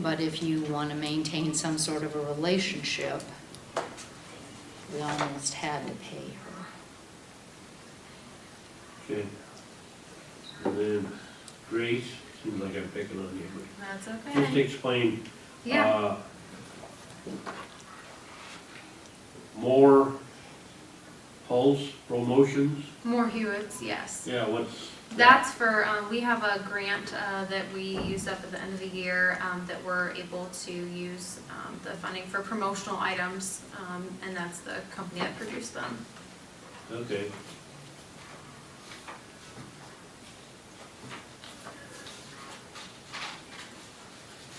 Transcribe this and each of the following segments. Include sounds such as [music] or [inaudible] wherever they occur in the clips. But if you want to maintain some sort of a relationship, we almost had to pay her. Okay. And then Grace, seems like I'm picking on you, That's but just okay. explain. Yeah. uh, More Pulse promotions? More Hewitts, yes. Yeah, what's? That's for, um, we have a grant, uh, that we used up at the end of the year, um, that we're able to use, um, the funding for promotional items, um, and that's the company that produced them. Okay.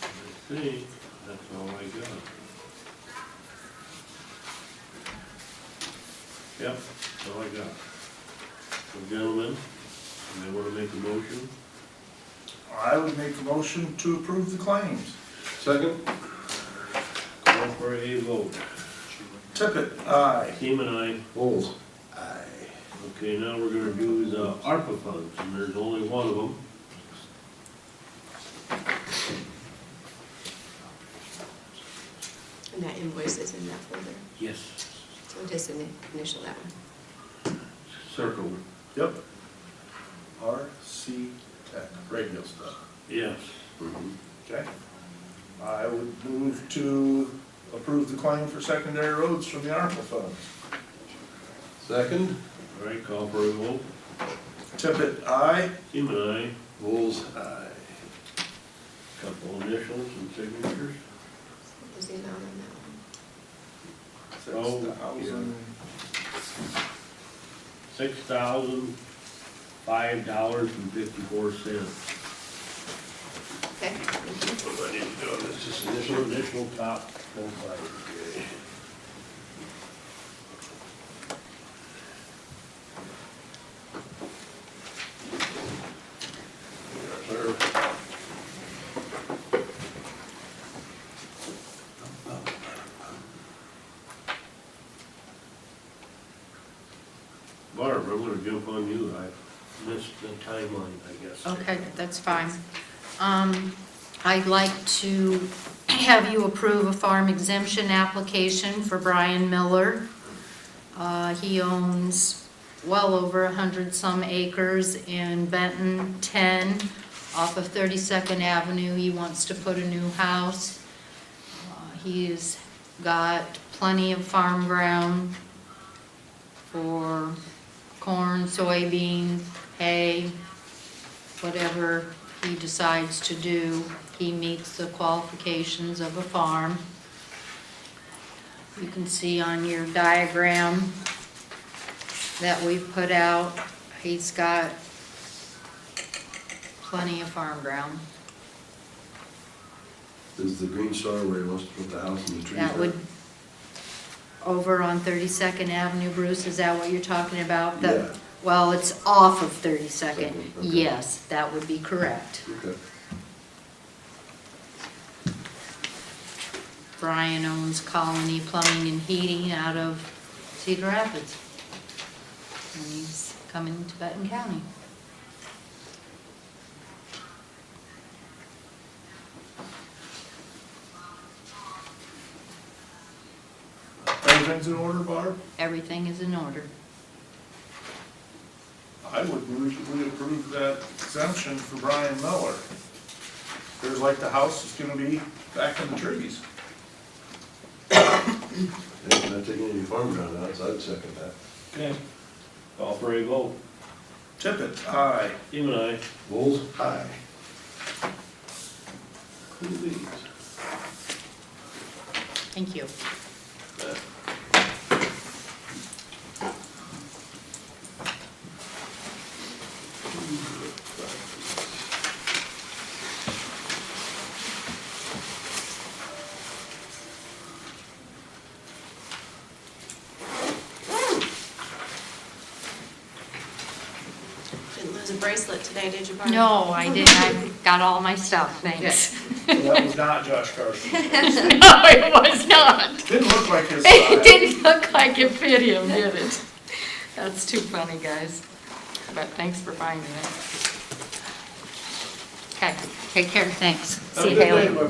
I think that's all I got. Yep, that's all I got. So gentlemen, you may wanna make a motion? I would make a motion to approve the claims. Second. Call for a vote. Tippit, aye. Team and I Bulls. Aye. Okay, now we're gonna do the ARPA funds, and there's only one of them. And that invoice is in that folder, Yes. so just ini- initial that one. Circle. Yep. RC Tech, radio stuff. Yes. Okay. I would move to approve the claim for secondary roads from the ARPA funds. Second, All right, call for a vote. Tippit, aye. Team and I, Bulls eye. couple initials and signatures. What was the amount on that one? Oh, Six thousand. Six thousand, five dollars and fifty-four cents. Okay, thank you. What I didn't do, this is initial, initial top, both sides. Sir. Barb, I'm gonna jump on you, I missed the timeline, I guess. Okay, that's fine. Um, I'd like to have you approve a farm exemption application for Brian Miller. Uh, He owns well over a 100-some acres in Benton 10 off of 32nd Avenue. He wants to put a new house. Uh, He's got plenty of farm ground for corn, soybean, hay, whatever he decides to do, he meets the qualifications of a farm. You can see on your diagram that we've put out, he's got plenty of farm ground. Is the green star where he wants to put the house and the trees? That would, at? over on 32nd Avenue, Bruce, is that what you're talking about? The- Yeah. Well, it's off of 32nd, Second, okay. yes, that would be correct. Okay. Brian owns Colony Plumbing and Heating out of Cedar Rapids. And he's coming to Benton County. Everything's in order, Barb? Everything is in order. I would move that we approve that exemption for Brian Miller. There's like the house is gonna be back in the trees. Yeah, If not taking any farm ground out, so I'd second that. Okay. Call for a vote. Tippit, aye. Team and I, Bulls eye. cool beans. Thank you. Didn't lose a bracelet today, did you, Barb? No, I didn't, I got all my stuff, thanks. [laughs] So That was not Josh Carson. No, it was [laughs] not. Didn't look like his It [laughs] style. didn't look like it fit him, did it? That's too funny, guys. But thanks for finding it. Okay, take care, thanks. Have a See you, good Haley. day, my